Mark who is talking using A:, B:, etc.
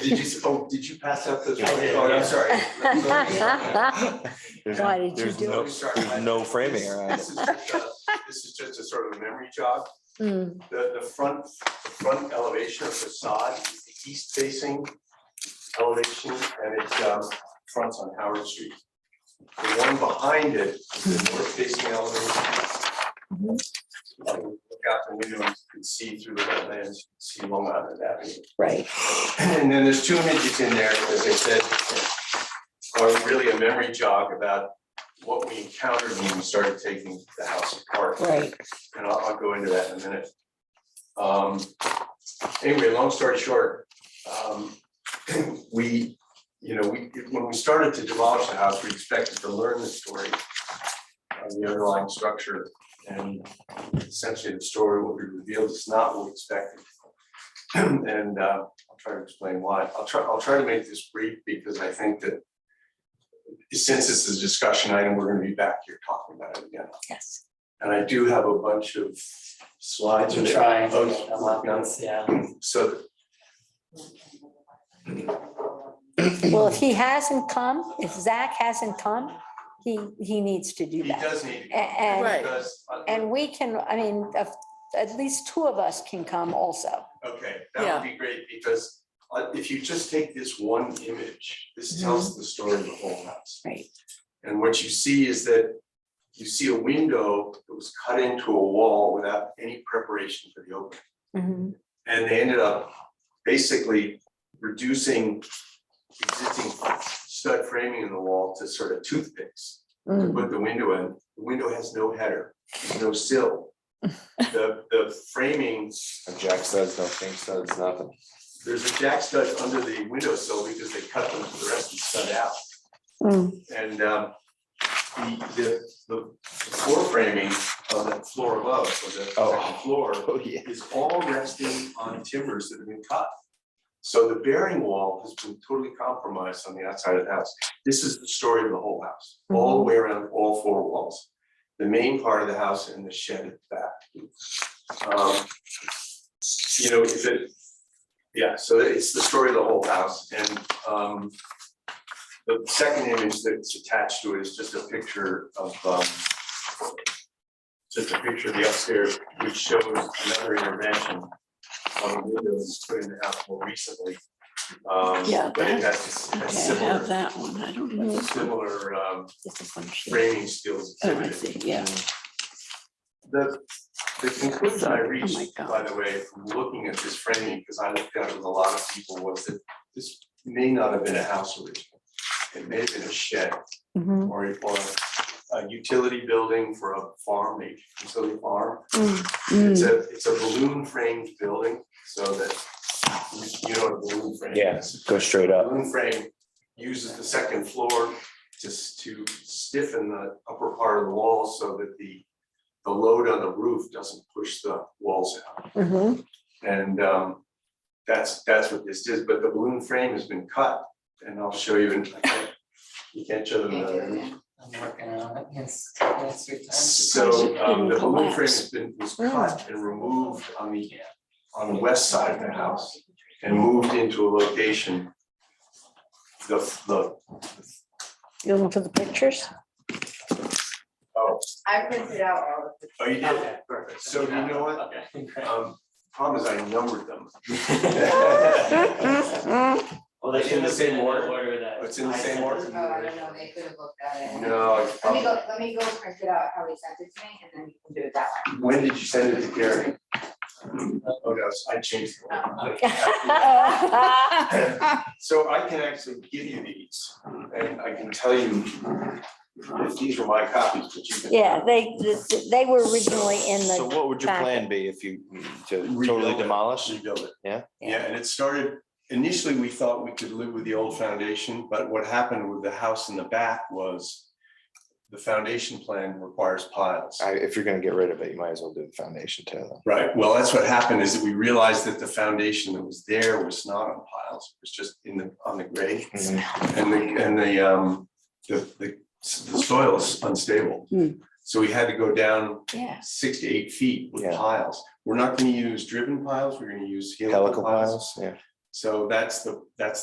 A: did you, oh, did you pass out those?
B: Yeah.
A: Oh, I'm sorry. I'm
B: There's-
C: Why did you
B: there's
C: do
B: no-
C: it?
A: sorry.
B: There's no framing around it.
A: This is just a- this is just a sort of a memory jog.
C: Mm,
A: The, the front, the front elevation of facade is the east facing elevation and it um, fronts on Howard Street. The one behind it is the north facing elevation. Like, Look out the window, you can see through the wetlands, you can see Long Island Avenue.
C: right,
A: And then there's two images in there, as I said, are really a memory jog about what we encountered when we started taking the house apart.
C: right.
A: And I'll, I'll go into that in a minute. Um, anyway, long story short, um, we, you know, we, when we started to demolish the house, we expected to learn the story of the underlying structure and essentially the story, what we revealed is not what we expected. And, uh, I'll try to explain why. I'll try, I'll try to make this brief because I think that since this is a discussion item, we're gonna be back here talking about it again.
C: Yes.
A: And I do have a bunch of slides.
D: To
A: with
D: try,
A: those-
D: a lot, yeah.
A: So that-
C: Well, if he hasn't come, if Zach hasn't come, he, he needs to do
A: he
C: that.
A: does need.
C: A- And,
E: Right.
A: Because, uh,
C: and we can, I mean, if- at least two of us can come also.
A: okay, that would be great, because uh, if you just take this one image, this tells the story of the whole house.
C: Mm-hmm. Right.
A: And what you see is that you see a window that was cut into a wall without any preparation for the opening.
C: Mhm.
A: And they ended up basically reducing existing stud framing in the wall to sort of toothpicks. to
C: Mm,
A: put the window in, the window has no header, no sill. The, the framing,
B: No Jack studs, no king studs, nothing.
A: there's a jack stud under the window sill because they cut them, the rest is stud out.
C: mm,
A: And um, the, the, the floor framing of the floor above, or the second
B: Oh.
A: floor
B: Oh, yeah.
A: is all resting on timbers that have been cut. So the bearing wall has been totally compromised on the outside of the house. This is the story of the whole house, all the way around all four walls. The main part of the house and the shed at the back. Um, You know, if it, yeah, so it's the story of the whole house and um. The second image that's attached to it is just a picture of um. Just a picture of the upstairs, which shows another intervention on the windows put in the house more recently. Um,
E: Yeah,
A: but it has a
E: Okay, I have
A: similar,
E: that one, I don't know.
A: similar um
E: It's a function.
A: framing skills.
E: Oh, I
A: exhibited.
E: see, yeah,
A: The, the conclusion I
E: Sorry. Oh, my
A: reached,
E: God.
A: by the way, from looking at this framing, because I looked at it with a lot of people, was that this may not have been a house originally. It may have been a shed
C: mhm,
A: or, a- or a utility building for a farm, a utility farm.
C: mm,
A: It's a, it's a balloon framed building, so that, you- you know what a balloon frame
B: Yeah,
A: is.
B: go straight
A: The
B: up.
A: Balloon frame uses the second floor just to stiffen the upper part of the wall so that the, the load on the roof doesn't push the walls out.
C: mhm.
A: And um, that's, that's what this is, but the balloon frame has been cut and I'll show you in, I can't- you can't show them another image.
D: I'm working on it, yes, next week.
A: So um,
E: Surprised
A: the
E: it
A: balloon
E: didn't
A: frame has been, was cut and removed on the, on the west side of the house and moved into a location. The, the,
C: You looking for the pictures?
A: oh,
F: I printed out all of the
A: oh, you did,
D: Okay.
A: perfect. So you know what?
D: Okay.
A: Um, problem is I numbered them.
C: Mm-hmm,
D: Well, they
A: It's in the
D: should have been
A: same
D: in
A: order?
D: the order that.
A: It's in the
D: I
A: same
D: sent
A: order?
D: it.
F: Oh, I don't know, they could have looked at it.
A: No, I-
F: Let me go, let me go print it out how he sent it to me and then you can do it that way.
A: when did you send it to Gary? Oh, no, I changed.
C: Oh,
A: So I can actually give you these and I can tell you if these were my copies, but you can.
C: Yeah, they, they were originally in
B: So
C: the,
B: what would your
C: back.
B: plan be if you mm, to
A: Rebuild
B: totally
A: it.
B: demolish?
A: rebuild it.
B: Yeah?
A: Yeah, and it started, initially, we thought we could live with the old foundation, but what happened with the house in the back was the foundation plan requires piles.
B: I, if you're gonna get rid of it, you might as well do the foundation too. then.
A: Right, well, that's what happened is that we realized that the foundation that was there was not on piles, it was just in the, on the grade.
B: Mm-hmm.
A: And the, and the, um, the, the, the soil is unstable.
C: Hmm.
A: So we had to go down
C: yeah,
A: six to eight feet with
B: Yeah.
A: piles. We're not gonna use driven piles, we're gonna use helical
B: Helical
A: piles.
B: piles, yeah.
A: So that's the, that's